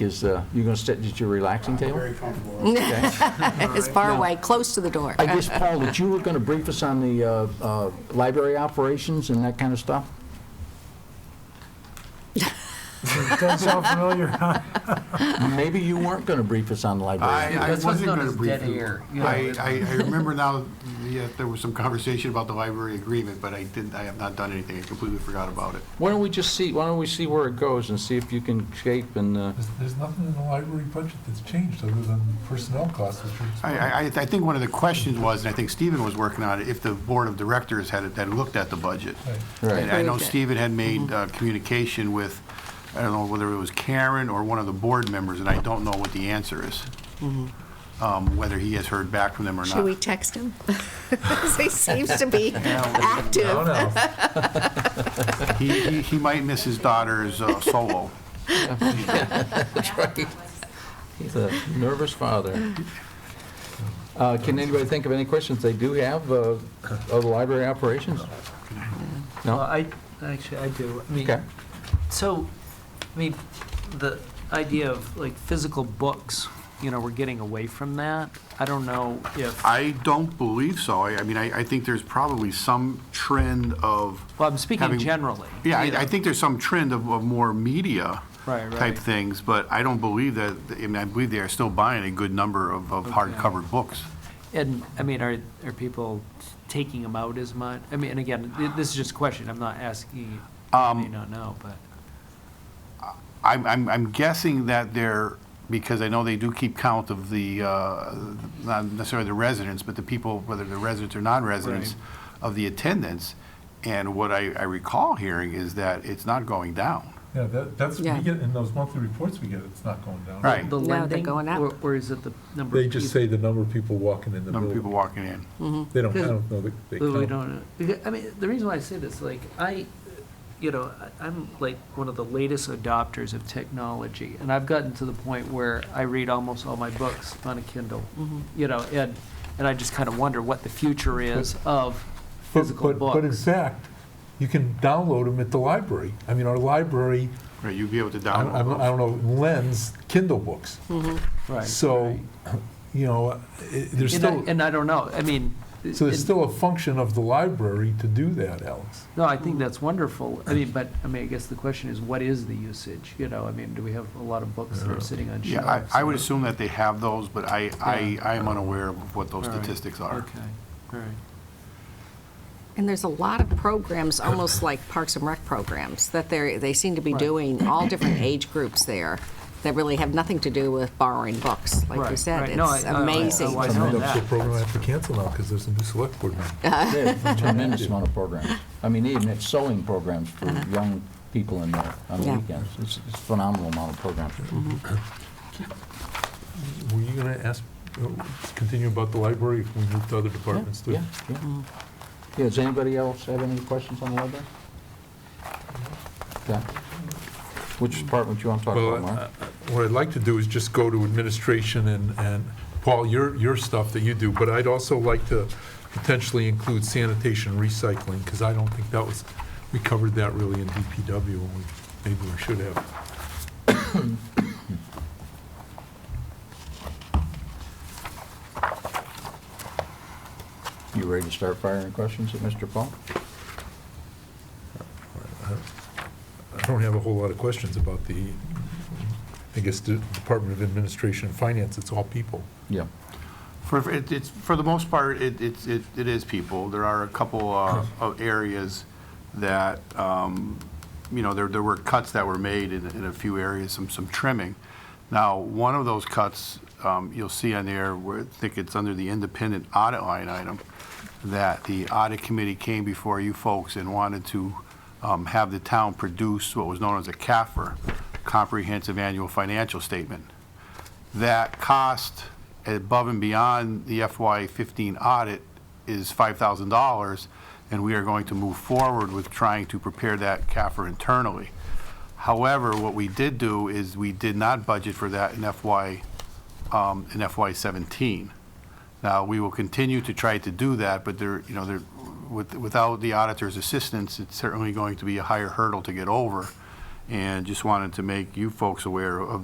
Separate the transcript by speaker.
Speaker 1: is, uh, you're going to sit at your relaxing table?
Speaker 2: Very comfortable.
Speaker 1: It's
Speaker 2: It's
Speaker 3: far away, close to the door.
Speaker 1: I guess, Paul, that you were going to brief us on the uh, uh, library operations and that kind of stuff?
Speaker 2: Does sound familiar.
Speaker 1: Maybe you weren't going to brief us on the
Speaker 2: I,
Speaker 1: library.
Speaker 2: I
Speaker 4: That's what's
Speaker 2: wasn't
Speaker 4: known
Speaker 2: gonna
Speaker 4: as
Speaker 2: brief
Speaker 4: dead
Speaker 2: you.
Speaker 4: air, you know.
Speaker 2: I, I, I remember now, yeah, there was some conversation about the library agreement, but I didn't, I have not done anything. I completely forgot about it.
Speaker 1: Why don't we just see, why don't we see where it goes and see if you can shape and, uh,
Speaker 5: There's, there's nothing in the library budget that's changed other than personnel costs, which are
Speaker 2: I, I, I I think one of the questions was, and I think Stephen was working on it, if the board of directors had, had looked at the budget.
Speaker 1: Right.
Speaker 2: And I know
Speaker 3: Approved it. Mm-hmm.
Speaker 2: Stephen had made uh, communication with, I don't know whether it was Karen or one of the board members, and I don't know what the answer is. Um, Whether he has heard back from them or not.
Speaker 3: Mm-hmm. Should we text him? 'Cause he seems to be active.
Speaker 5: know.
Speaker 2: He, he, he might miss his daughter's uh, solo.
Speaker 1: He's a nervous father. Uh, Can anybody think of any questions they do have uh, of the library operations?
Speaker 4: Well,
Speaker 1: No?
Speaker 4: I, actually, I do. I mean,
Speaker 1: Okay.
Speaker 4: So, I mean, the idea of like physical books, you know, we're getting away from that. I don't know if, well,
Speaker 2: I don't believe so. I, I mean, I, I think there's probably some trend of,
Speaker 4: I'm speaking
Speaker 2: Having-
Speaker 4: generally.
Speaker 2: yeah,
Speaker 4: you know.
Speaker 2: I, I think there's some trend of, of more media
Speaker 4: Right, right.
Speaker 2: type things, but I don't believe that, I mean, I believe they are still buying a good number of, of hardcover books.
Speaker 4: And, I mean, are, are people taking them out as much? I mean, and again, th- this is just a question. I'm not asking, you I may not know, but,
Speaker 2: I'm, I'm, I'm guessing that they're, because I know they do keep count of the, uh, not necessarily the residents, but the people, whether they're residents or non-residents, of the attendance. And what I, I recall hearing is that it's not going down.
Speaker 5: Yeah, that, that's, we
Speaker 3: Yeah.
Speaker 5: get, in those monthly reports we get, it's not going down.
Speaker 2: Right.
Speaker 4: the
Speaker 3: No, they're
Speaker 4: lending?
Speaker 3: going up.
Speaker 4: Or, or is it the number? of
Speaker 5: They just
Speaker 4: people?
Speaker 5: say the number of people walking in the
Speaker 2: Number of people
Speaker 5: building.
Speaker 2: walking in.
Speaker 5: They don't, I don't know that they
Speaker 4: Well, we
Speaker 5: count.
Speaker 4: Mm-hmm. don't know. Because- I mean, the reason why I say this, like, I, you know, I- I'm like one of the latest adopters of technology, and I've gotten to the point where I read almost all my books on a Kindle,
Speaker 2: Mm-hmm.
Speaker 4: you know, and, and I just kind of wonder what the future is of
Speaker 5: But-
Speaker 4: physical
Speaker 5: but- But in
Speaker 4: books.
Speaker 5: fact, you can download them at the library. I mean, our library,
Speaker 2: Right, you'd be able to
Speaker 5: I don't- I
Speaker 2: download
Speaker 5: don't I
Speaker 2: those.
Speaker 5: don't know, lends Kindle books.
Speaker 4: Right.
Speaker 5: So, you know, it- there's
Speaker 4: And I,
Speaker 5: still,
Speaker 4: and I don't know, I mean.
Speaker 5: so there's
Speaker 4: it-
Speaker 5: still a function of the library to do that, Alex.
Speaker 4: No, I think that's wonderful. I mean, but, I mean, I guess the question is, what is the usage? You know, I mean, do we have a lot of books that are
Speaker 5: Uh-huh.
Speaker 4: sitting on
Speaker 2: Yeah,
Speaker 4: shelves?
Speaker 2: I, I would
Speaker 4: or-
Speaker 2: assume that they have those, but I, I, I am unaware of what those
Speaker 4: All right.
Speaker 2: statistics are.
Speaker 4: Okay, all right.
Speaker 3: And there's a lot of programs, almost like Parks and Rec programs, that they they seem to be
Speaker 4: Right.
Speaker 3: doing, all different age groups there, that really have nothing to do with borrowing books, like you
Speaker 4: Right,
Speaker 3: said.
Speaker 4: right. No, I-
Speaker 3: It's
Speaker 4: I- I-
Speaker 3: amazing.
Speaker 4: I
Speaker 5: Some
Speaker 4: know
Speaker 5: of the
Speaker 4: that.
Speaker 5: program I have to cancel now because there's a new select board member.
Speaker 1: Yeah, Tremendous amount of programs. I mean, even it's sewing programs for young people in the, on the
Speaker 3: Yeah.
Speaker 1: weekends. It's it's phenomenal amount of programs.
Speaker 5: Mm-hmm. Were you going to ask, uh, continue about the library if we move to other departments too?
Speaker 1: Yeah, yeah. Yeah, does anybody else have any questions on the library? Okay. Which department you want to talk
Speaker 5: Well,
Speaker 1: about, Mark?
Speaker 5: I- I- what I'd like to do is just go to administration and, and Paul, your, your stuff that you do, but I'd also like to potentially include sanitation recycling, because I don't think that was, we covered that really in DPW, and we, maybe we should have.
Speaker 1: You ready to start firing questions at Mr. Paul?
Speaker 5: I don't have a whole lot of questions about the, I guess, the Department of Administration and Finance, it's all people.
Speaker 1: Yeah.
Speaker 2: For, for- it- it's, for the most part, it, it's- it, it is people. There are a couple uh, of areas that, um, you know, there, there were cuts that were made in, in a few areas, some, some trimming. Now, one of those cuts, um, you'll see on there, where I think it's under the independent audit line item, that the audit committee came before you folks and wanted to um, have the town produce what was known as a CAFR, Comprehensive Annual Financial Statement that cost above and beyond the FY15 audit is $5,000, and we are going to move forward with trying to prepare that CAFR internally. However, what we did do is we did not budget for that in FY, um, in FY17. Now, we will continue to try to do that, but there, you know, there, with- without the auditor's assistance, it's certainly going to be a higher hurdle to get over, and just wanted to make you folks aware of